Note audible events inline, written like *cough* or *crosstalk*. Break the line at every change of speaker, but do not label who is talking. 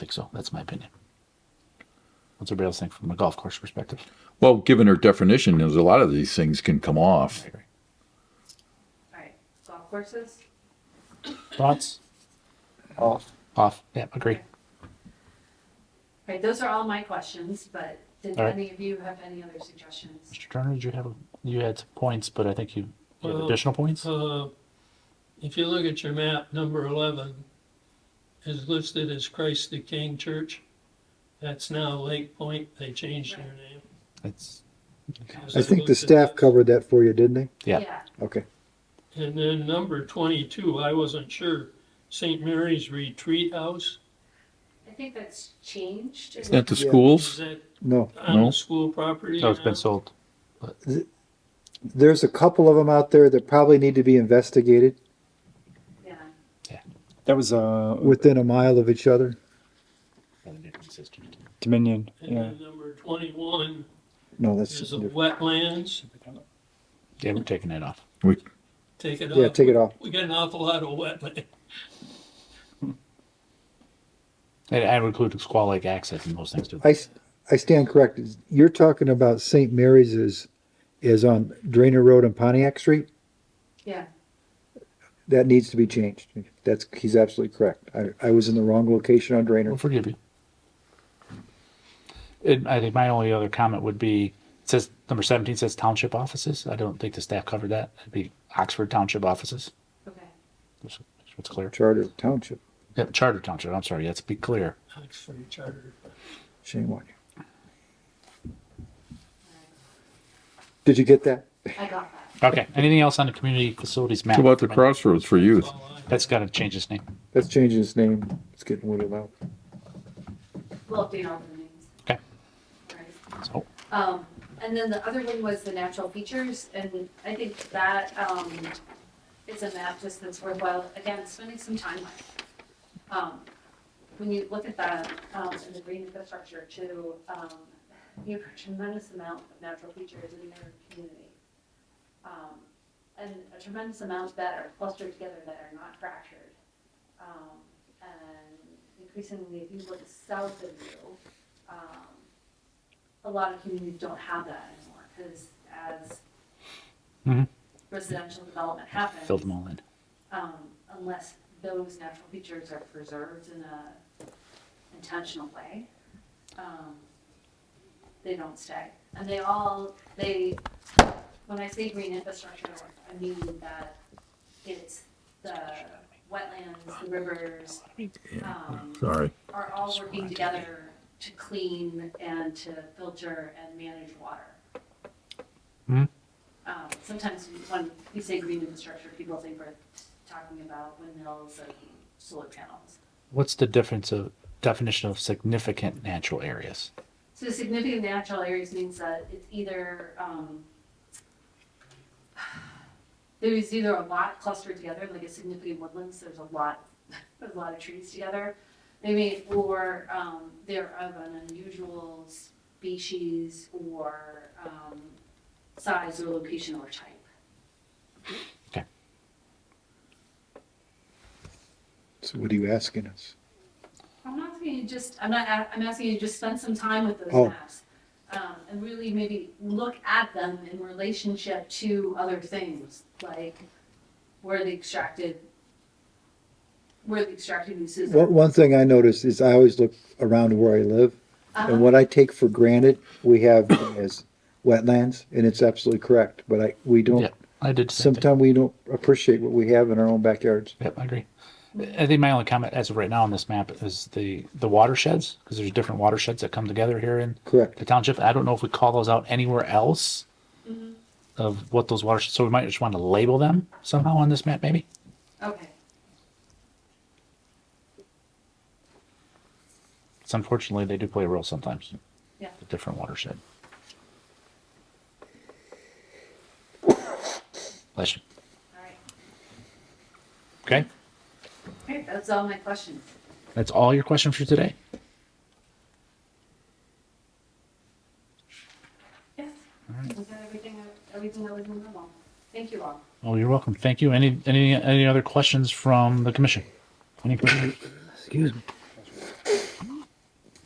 think so. That's my opinion. What's everybody else think from a golf course perspective?
Well, given her definition, there's a lot of these things can come off.
Alright, golf courses?
Thoughts? Off. Off. Yeah, agree.
Alright, those are all my questions, but did
All right.
any of you have any other suggestions?
Mr. Turner, did you have you had points, but I think you, you had
Well,
additional points.
Uh, If you look at your map, number 11 is listed as Christ the King Church. That's now Lake Point. They changed their name.
It's
I think the staff covered that for you, didn't they?
Yeah.
Okay.
And then number 22, I wasn't sure, St. Mary's Retreat House.
I think that's changed.
Isn't that the
Yeah.
Is
schools?
that
No,
on
No.
the school property?
no, oh, it's been
now?
sold.
there's a couple of them out there that probably need to be investigated
Yeah,
That was uh,
within a mile of each other.
Dominion.
And
Yeah.
then number 21
No, that's
is
just
the
different.
wetlands.
Yeah, we're taking it off.
Take it off.
Yeah, take it off.
We got an awful lot of *laughs* wetland.
And I would include Squaw Lake access and those things too.
I, s- I stand corrected. You're talking about St. Mary's is, is on Drainer Road and Pontiac Street?
yeah,
That needs to be changed. That's, he's absolutely correct. I, I was in the wrong location on Drainer.
We'll forgive you. And I think my only other comment would be it says number 17 says township offices. I don't think the staff covered that. It'd be Oxford Township offices.
okay.
That's what's clear.
Charter Township,
Yeah, Charter Township. I'm sorry. Let's be clear.
Oxford Charter.
shame on you. Did you get that?
I got that.
Okay. Anything else on the community facilities map?
How about the crossroads for youth?
All I-
That's got to change its name.
That's changing its name. It's getting whittled out.
We'll update all the names.
Okay.
Alright.
So
Um, and then the other one was the natural features, and I think that, um, is a map just that's worthwhile, again, spending some time on. Um, when you look at that, um, and the green infrastructure too, um, you have a tremendous amount of natural features in their community. Um, and a tremendous amount that are clustered together that are not fractured. Um, and increasingly, if you look south of you, um, a lot of communities don't have that anymore, because as
Mhm.
residential development
fill them
happens,
all in.
um, unless those natural features are preserved in a intentional way, um, they don't stay. And they all, they, when I say green infrastructure, I mean that it's the wetlands, the rivers, um,
Sorry.
are all working together to clean and to filter and manage water.
Hmm.
Um, Sometimes when we say green infrastructure, people think we're talking about windmills and solar panels.
What's the difference of definition of significant natural areas?
So significant natural areas means that it's either, um, there is either a lot clustered together, like a significant woodlands, there's a lot, *laughs* there's a lot of trees together. Maybe, or, um, they're of an unusual species or, um, size or location or type.
So what are you asking us?
I'm not asking you just, I'm not, a- I'm asking you to just spend some time with
Oh.
those maps. Um, and really maybe look at them in relationship to other things, like where the extracted, where the extracted uses are.
One, one thing I noticed is I always look around where I live,
Uh-huh.
and what I take for granted, we have *coughs* as wetlands, and it's absolutely correct, but I, we
Yeah,
don't,
I did. the same thing.
sometimes we don't appreciate what we have in our own backyards.
Yep, I agree. I think my only comment as of right now on this map is the, the watersheds, because there's different watersheds that come together here in
Correct.
the township. I don't know if we call those out anywhere else of what those watersheds, so we might just want to label them somehow on this map, maybe?
Okay,
It's unfortunately, they do play a role sometimes.
Yeah.
The different watershed. Bless you.
all right.
Okay,
Okay, that's all my questions.
that's all your question for today?
Yes. Was that everything, I- everything that was in the memo? Thank you all.
Oh, you're welcome. Thank you. Any, any, any other questions from the commission? Any questions? Excuse me.